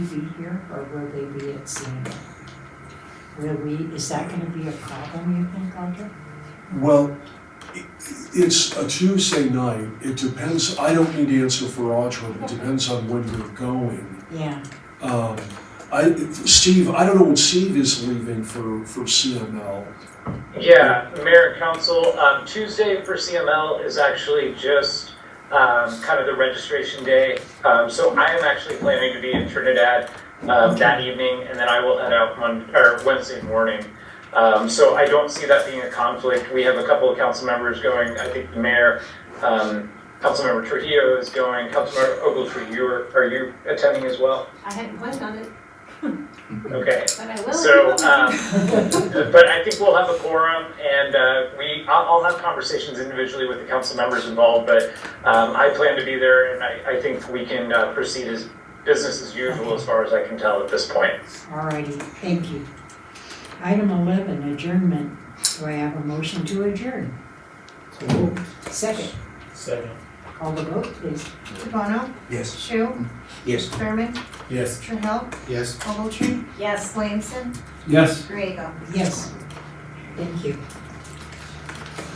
be here or will they be at Sandra? Will we, is that gonna be a problem, you think, Roger? Well, i- it's a Tuesday night, it depends, I don't need to answer for Audra, it depends on when you're going. Yeah, Um, I, Steve, I don't know when Steve is leaving for, for CML. Yeah, Mayor and Council, um, Tuesday for CML is actually just, um, kind of the registration day. Um, so I am actually planning to be in Trinidad, um, that evening, and then I will head out Mon, or Wednesday morning. Um, so I don't see that being a conflict. We have a couple of council members going, I think the mayor, um, Councilmember Trujillo is going, Councilmember Ogletree, you are, are you attending as well? I haven't planned on it, Okay. but I will. So, um, but I think we'll have a quorum and, uh, we, I'll, I'll have conversations individually with the council members involved, but, um, I plan to be there and I, I think we can, uh, proceed as business as usual as far as I can tell at this point. alrighty, thank you. Item eleven, adjournment. Do I have a motion to adjourn? Second, Second. call the vote, please. Devono, Yes. Shu, Yes. Thurman, Yes. Trahell, Yes. Ogletree, Yes. Williamson, Yes. Griego. Yes, thank you.